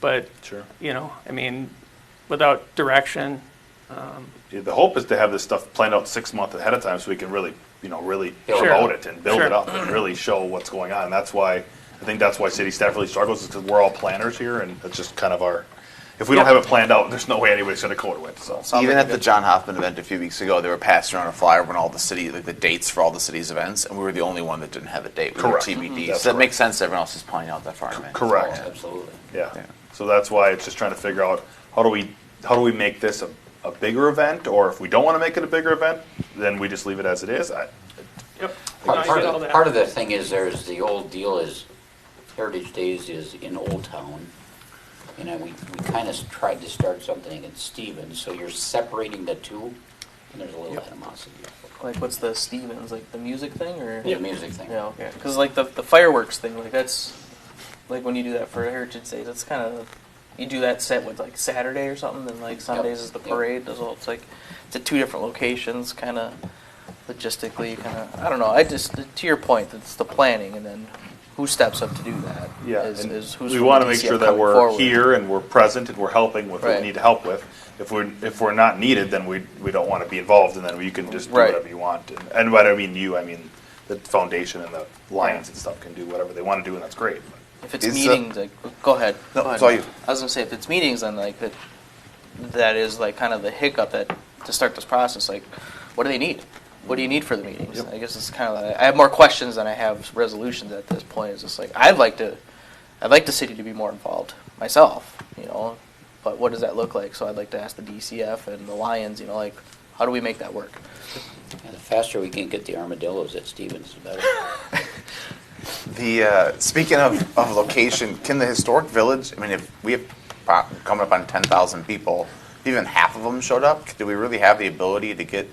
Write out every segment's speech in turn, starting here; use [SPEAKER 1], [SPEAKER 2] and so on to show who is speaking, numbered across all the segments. [SPEAKER 1] But,
[SPEAKER 2] Sure.
[SPEAKER 1] you know, I mean, without direction,
[SPEAKER 2] Yeah, The hope is to have this stuff planned out six months ahead of time so we can really, you know, really
[SPEAKER 1] Sure.
[SPEAKER 2] promote it and build it
[SPEAKER 1] Sure.
[SPEAKER 2] up and really show what's going on. That's why, I think that's why city staff really struggles is because we're all planners here and it's just kind of our, if we don't
[SPEAKER 1] Yeah.
[SPEAKER 2] have it planned out, there's no way anybody's gonna code it, so.
[SPEAKER 3] Even at the John Hoffman event a few weeks ago, they were passing around a flyer when all the city, like the dates for all the city's events, and we were the only one that didn't have a date. We were
[SPEAKER 2] Correct. Mhm.
[SPEAKER 3] TBD.
[SPEAKER 2] That's
[SPEAKER 3] so that
[SPEAKER 2] correct.
[SPEAKER 3] makes sense. that Everyone else is playing out that far. in advance.
[SPEAKER 2] correct.
[SPEAKER 4] Oh,
[SPEAKER 3] Yeah.
[SPEAKER 5] Absolutely.
[SPEAKER 2] Yeah.
[SPEAKER 3] Yeah.
[SPEAKER 2] So that's why it's just trying to figure out how do we how do we make this a, a bigger event, or if we don't want to make it a bigger event, then we just leave it as it is. I,
[SPEAKER 1] yep. no, I
[SPEAKER 5] Part part
[SPEAKER 1] get all
[SPEAKER 5] of,
[SPEAKER 1] that.
[SPEAKER 5] part of the thing is there's, the old deal is Heritage Days is in Old Town. You know, we, we kind of tried to start something in Stevens, so you're separating the two, and there's a little animosity.
[SPEAKER 4] Like, what's the Stevens? Like the music thing, or
[SPEAKER 5] The music thing.
[SPEAKER 4] Yeah, okay. Because like the the fireworks thing, like that's like when you do that for Heritage Days, that's kind of you do that set with like Saturday or something, then like Sundays is the
[SPEAKER 5] Yep.
[SPEAKER 4] parade. As well, it's like it's at two different locations, kind of logistically, kind of I don't know. I just to your point, it's the planning, and then who steps up to do that?
[SPEAKER 2] yeah,
[SPEAKER 4] is,
[SPEAKER 2] and
[SPEAKER 4] is who's
[SPEAKER 2] we
[SPEAKER 4] from
[SPEAKER 2] want to
[SPEAKER 4] the
[SPEAKER 2] make
[SPEAKER 4] DCF
[SPEAKER 2] sure that
[SPEAKER 4] coming
[SPEAKER 2] we're
[SPEAKER 4] forward.
[SPEAKER 2] here and we're present and we're helping with what
[SPEAKER 4] Right.
[SPEAKER 2] we need help with. If we're if we're not needed, then we we don't want to be involved, and then you can just do
[SPEAKER 4] Right.
[SPEAKER 2] whatever you want. And, and what I mean you, I mean the foundation and the lions and stuff can do whatever they want to do, and that's great.
[SPEAKER 4] If it's
[SPEAKER 3] Is, uh,
[SPEAKER 4] meetings, like, go ahead.
[SPEAKER 3] No,
[SPEAKER 4] go ahead.
[SPEAKER 3] sorry.
[SPEAKER 4] I was gonna say, if it's meetings, then like that, that is like kind of the hiccup that to start this process. Like, what do they need? What do you need for the meetings?
[SPEAKER 2] Yep.
[SPEAKER 4] I guess it's kind of. Like, I have more questions than I have resolutions at this point. It's just like I'd like to, I'd like the city to be more involved myself. You know, but what does that look like? So I'd like to ask the DCF and the Lions. You know, like how do we make that work?
[SPEAKER 5] And the faster we can get the armadillos at Stevens, the better.
[SPEAKER 3] The uh, speaking of, of location, can the historic village? I mean, if we have pro- coming up on ten thousand people, if even half of them showed up, do we really have the ability to get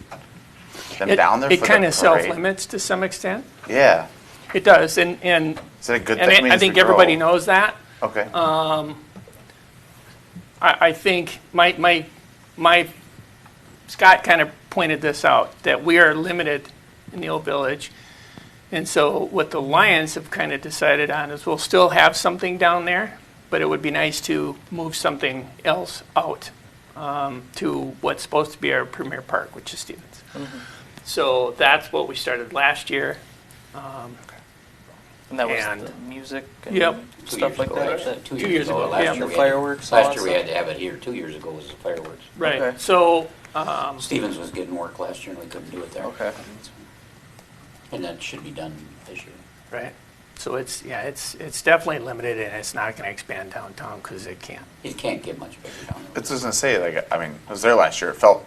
[SPEAKER 3] them
[SPEAKER 1] It-
[SPEAKER 3] down there?
[SPEAKER 1] It
[SPEAKER 3] for
[SPEAKER 1] kind
[SPEAKER 3] the
[SPEAKER 1] of
[SPEAKER 3] parade?
[SPEAKER 1] self-limits to some extent.
[SPEAKER 3] Yeah,
[SPEAKER 1] It does, and, and,
[SPEAKER 3] is that a good
[SPEAKER 1] and
[SPEAKER 3] thing?
[SPEAKER 1] I- I
[SPEAKER 3] mean,
[SPEAKER 1] think
[SPEAKER 3] we grow-
[SPEAKER 1] everybody knows that.
[SPEAKER 3] Okay.
[SPEAKER 1] I, I think my, my, my, Scott kind of pointed this out, that we are limited in the old village. And so what the Lions have kind of decided on is we'll still have something down there, but it would be nice to move something else out um, to what's supposed to be our premier park, which is Stevens. So that's what we started last year.
[SPEAKER 4] And that was
[SPEAKER 1] And-
[SPEAKER 4] the music and
[SPEAKER 1] Yep.
[SPEAKER 5] Two years
[SPEAKER 4] stuff like
[SPEAKER 5] ago,
[SPEAKER 4] that.
[SPEAKER 5] actually.
[SPEAKER 4] that-
[SPEAKER 1] Two years ago,
[SPEAKER 5] last
[SPEAKER 1] yeah. The
[SPEAKER 5] year we had to-
[SPEAKER 4] fireworks, all
[SPEAKER 5] Last
[SPEAKER 4] that
[SPEAKER 5] year we
[SPEAKER 4] stuff.
[SPEAKER 5] had to have it here, two years ago was the fireworks.
[SPEAKER 4] Okay.
[SPEAKER 1] Right, so, Um,
[SPEAKER 5] Stevens was getting work last year and we couldn't do it there.
[SPEAKER 4] Okay.
[SPEAKER 5] And that should be done this year.
[SPEAKER 1] right, so it's, yeah, it's, it's definitely limited and it's not going to expand downtown because it can't.
[SPEAKER 5] It can't get much bigger down there.
[SPEAKER 3] It's just gonna say like I mean, I was there last year. It felt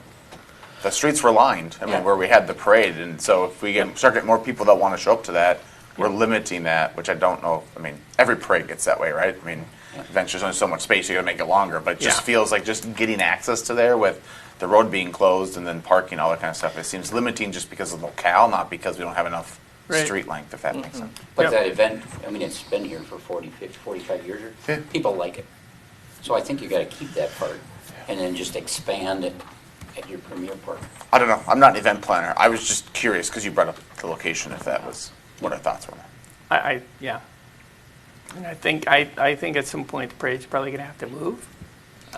[SPEAKER 3] the streets were lined. I mean,
[SPEAKER 5] Yeah.
[SPEAKER 3] where we had the parade, and so if we get start getting more people that want to show up to that, we're limiting that, which I don't know. I mean, every parade gets that way, right? I mean, events there's only so much space. You gotta make it longer, but it just
[SPEAKER 1] Yeah.
[SPEAKER 3] feels like just getting access to there with the road being closed and then parking, all that kind of stuff. It seems limiting just because of locale, not because we don't have enough
[SPEAKER 1] Right. Mm-hmm.
[SPEAKER 3] street length. If that makes sense.
[SPEAKER 1] Yep.
[SPEAKER 5] But that event, I mean, it's been here for 40, 50, 45 years.
[SPEAKER 3] Yeah.
[SPEAKER 5] People like it. So I think you got to keep that part and then just expand it at your premier park.
[SPEAKER 3] I don't know. I'm not an event planner. I was just curious because you brought up the location. If that was what our thoughts were.
[SPEAKER 1] I, I, yeah. And I think, I, I think at some point the parade's probably gonna have to move.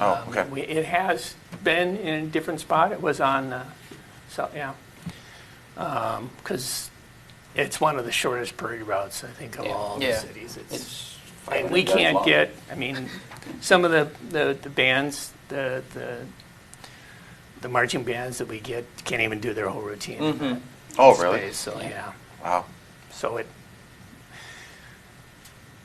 [SPEAKER 3] Oh, okay.
[SPEAKER 1] We, it has been in a different spot. It was on, uh, so, yeah. Um 'cause cause it's one of the shortest parade routes, I think, of
[SPEAKER 5] Yeah.
[SPEAKER 1] all the
[SPEAKER 4] Yeah.
[SPEAKER 1] cities. It's,
[SPEAKER 5] It's.
[SPEAKER 1] and we
[SPEAKER 5] 500 yards
[SPEAKER 1] can't
[SPEAKER 5] long.
[SPEAKER 1] get, I mean, some of the, the, the bands, the, the, the marching bands that we get can't even do their whole routine. in
[SPEAKER 4] Mm-hmm.
[SPEAKER 1] that
[SPEAKER 3] Oh, really?
[SPEAKER 1] space, So, yeah,
[SPEAKER 3] Wow.
[SPEAKER 1] so it,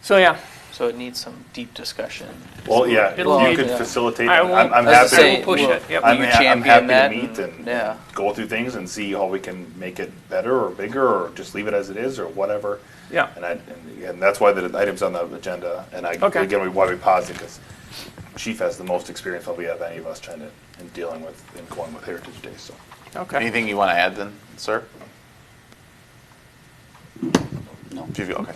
[SPEAKER 1] so, yeah.
[SPEAKER 4] So it needs some deep discussion.
[SPEAKER 2] Well, yeah, if
[SPEAKER 1] It'll
[SPEAKER 2] you
[SPEAKER 1] need-
[SPEAKER 2] could
[SPEAKER 4] yeah.
[SPEAKER 2] facilitate.
[SPEAKER 1] I
[SPEAKER 2] it,
[SPEAKER 1] will-
[SPEAKER 2] I'm, I'm
[SPEAKER 1] I was
[SPEAKER 2] happy.
[SPEAKER 1] gonna say,
[SPEAKER 2] to
[SPEAKER 1] we'll push
[SPEAKER 2] meet-
[SPEAKER 1] it. Yep.
[SPEAKER 2] I'm,
[SPEAKER 4] Will you
[SPEAKER 2] ha- I'm
[SPEAKER 4] champion
[SPEAKER 2] happy
[SPEAKER 4] that
[SPEAKER 2] to meet
[SPEAKER 4] and-
[SPEAKER 2] and,
[SPEAKER 4] yeah.
[SPEAKER 2] go through things and see how we can make it better or bigger or just leave it as it is or whatever.
[SPEAKER 1] Yeah.
[SPEAKER 2] And I, and, and that's why the item's on the agenda. And I
[SPEAKER 1] Okay.
[SPEAKER 2] again, we, why we paused it because Chief has the most experience probably of any of us trying to in dealing with and going with Heritage Day. So
[SPEAKER 1] Okay.
[SPEAKER 3] Anything you want to add then, sir?
[SPEAKER 5] No.
[SPEAKER 3] Do you- okay.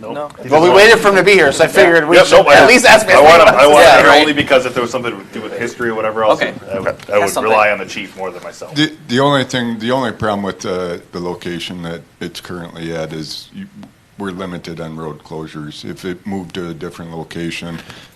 [SPEAKER 4] No.
[SPEAKER 3] Well, we waited for him to be here, so I figured we
[SPEAKER 2] Yep,
[SPEAKER 3] should
[SPEAKER 2] nope, I-
[SPEAKER 3] at least ask.
[SPEAKER 2] I want to, I want
[SPEAKER 4] Yeah,
[SPEAKER 2] to,
[SPEAKER 4] right.
[SPEAKER 2] only because if there was something to do with history or whatever else,
[SPEAKER 4] Okay.
[SPEAKER 2] I would, I
[SPEAKER 4] That's
[SPEAKER 2] would
[SPEAKER 4] something.
[SPEAKER 2] rely on the chief more than myself.
[SPEAKER 6] The, the only thing, the only problem with uh, the location that it's currently at is you, we're limited on road closures. If it moved to a different location,